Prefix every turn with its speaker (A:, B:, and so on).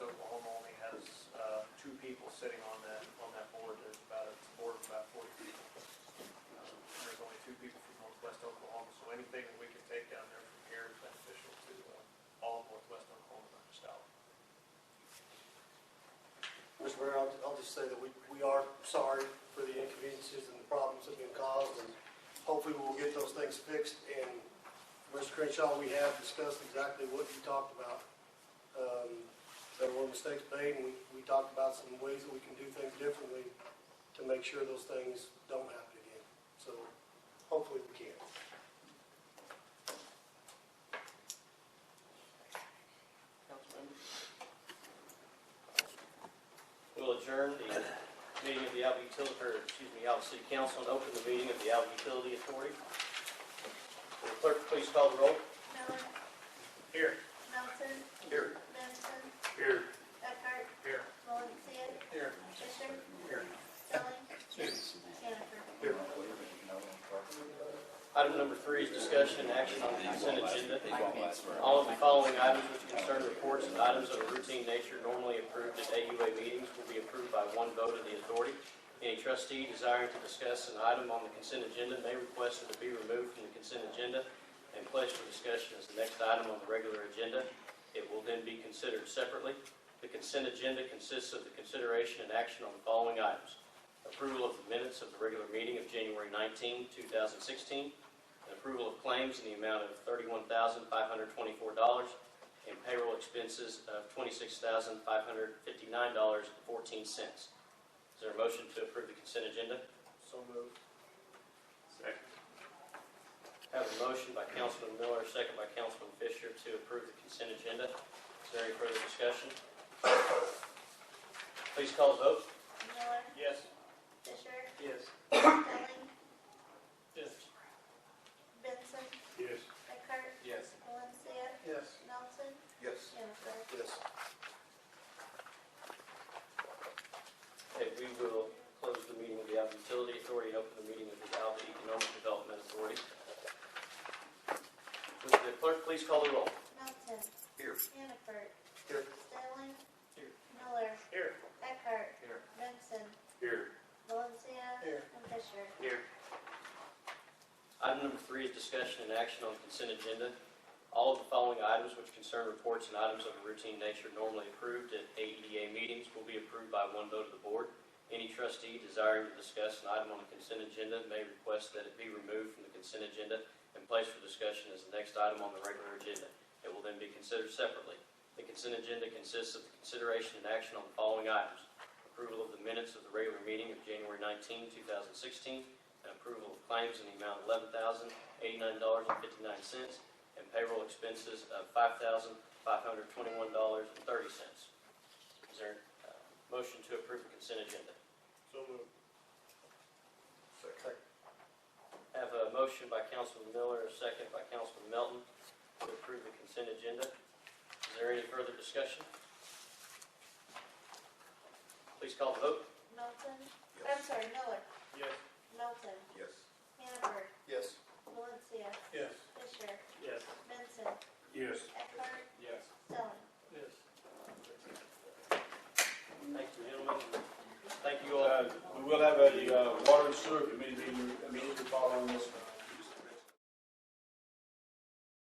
A: uh, Uh, uh, Mr. Mayor, I'll, I'll just say that we, we are sorry for the inconveniences and the problems that have been caused, and hopefully we'll get those things fixed. And Mr. Crenshaw, we have discussed exactly what you talked about. Um, there were mistakes made, and we, we talked about some ways that we can do things differently to make sure those things don't happen again. So hopefully we can.
B: We'll adjourn the meeting of the Alva Utility, or excuse me, Alva City Council and open the meeting of the Alva Utility Authority. Will the Clerk, please call the roll.
C: Miller,
B: Here.
C: Melton,
B: Here.
C: Benson,
B: Here.
C: Eckhart.
B: Here.
C: Valencia.
B: Here.
C: Fisher.
B: Here.
C: Stelling. Hannaford.
B: Item number three is discussion and action on the consent agenda. All of the following items which concern reports and items of a routine nature normally approved at AUA meetings will be approved by one vote of the authority. Any trustee desiring to discuss an item on the consent agenda may request it to be removed from the consent agenda and placed for discussion as the next item on the regular agenda. It will then be considered separately. The consent agenda consists of the consideration and action on the following items. Approval of the minutes of the regular meeting of January 19, 2016. and Approval of claims in the amount of $31,524 and payroll expenses of $26,559.14. Is there a motion to approve the consent agenda?
A: So moved.
B: Have a motion by Councilman Miller, second by Councilman Fisher to approve the consent agenda. Is there any further discussion? Please call the vote.
C: Miller,
B: Yes.
C: Fisher,
B: Yes.
C: Stelling,
B: Yes.
C: Benson,
A: Yes.
C: Eckhart,
B: Yes.
C: Valencia,
A: Yes.
C: Melton,
A: Yes.
C: Hannaford.
A: Yes.
B: Okay, we will close the meeting of the Alva Utility Authority and open the meeting of the Alva Economic Development Authority. Would the clerk please call the roll?
C: Melton.
A: Here.
C: Hannaford.
A: Here.
C: Stelling.
B: Here.
C: Miller,
B: Here.
C: Eckhart.
B: Here.
C: Benson,
B: Here.
C: Valencia.
A: Here.
C: And Fisher.
B: Here. Item number three is discussion and action on consent agenda. All of the following items which concern reports and items of a routine nature normally approved at AEDA meetings will be approved by one vote of the board. Any trustee desiring to discuss an item on the consent agenda may request that it be removed from the consent agenda and placed for discussion as the next item on the regular agenda. It will then be considered separately. The consent agenda consists of the consideration and action on the following items. Approval of the minutes of the regular meeting of January 19, 2016, and approval of claims in the amount of eleven thousand eighty-nine dollars and fifty-nine cents and payroll expenses of five thousand five hundred twenty-one dollars and thirty cents. Is there a motion to approve the consent agenda?
A: So moved. Second.
B: I Have a motion by Councilman Miller, a second by Councilman Melton to approve the consent agenda. Is there any further discussion? Please call the vote.
C: Melton. I'm sorry, Miller.
A: Yes.
C: Melton.
A: Yes.
C: Hannaford.
A: Yes.
C: Valencia.
A: Yes.
C: Fisher.
A: Yes.
C: Benson.
A: Yes.
C: Eckhart.
B: Uh,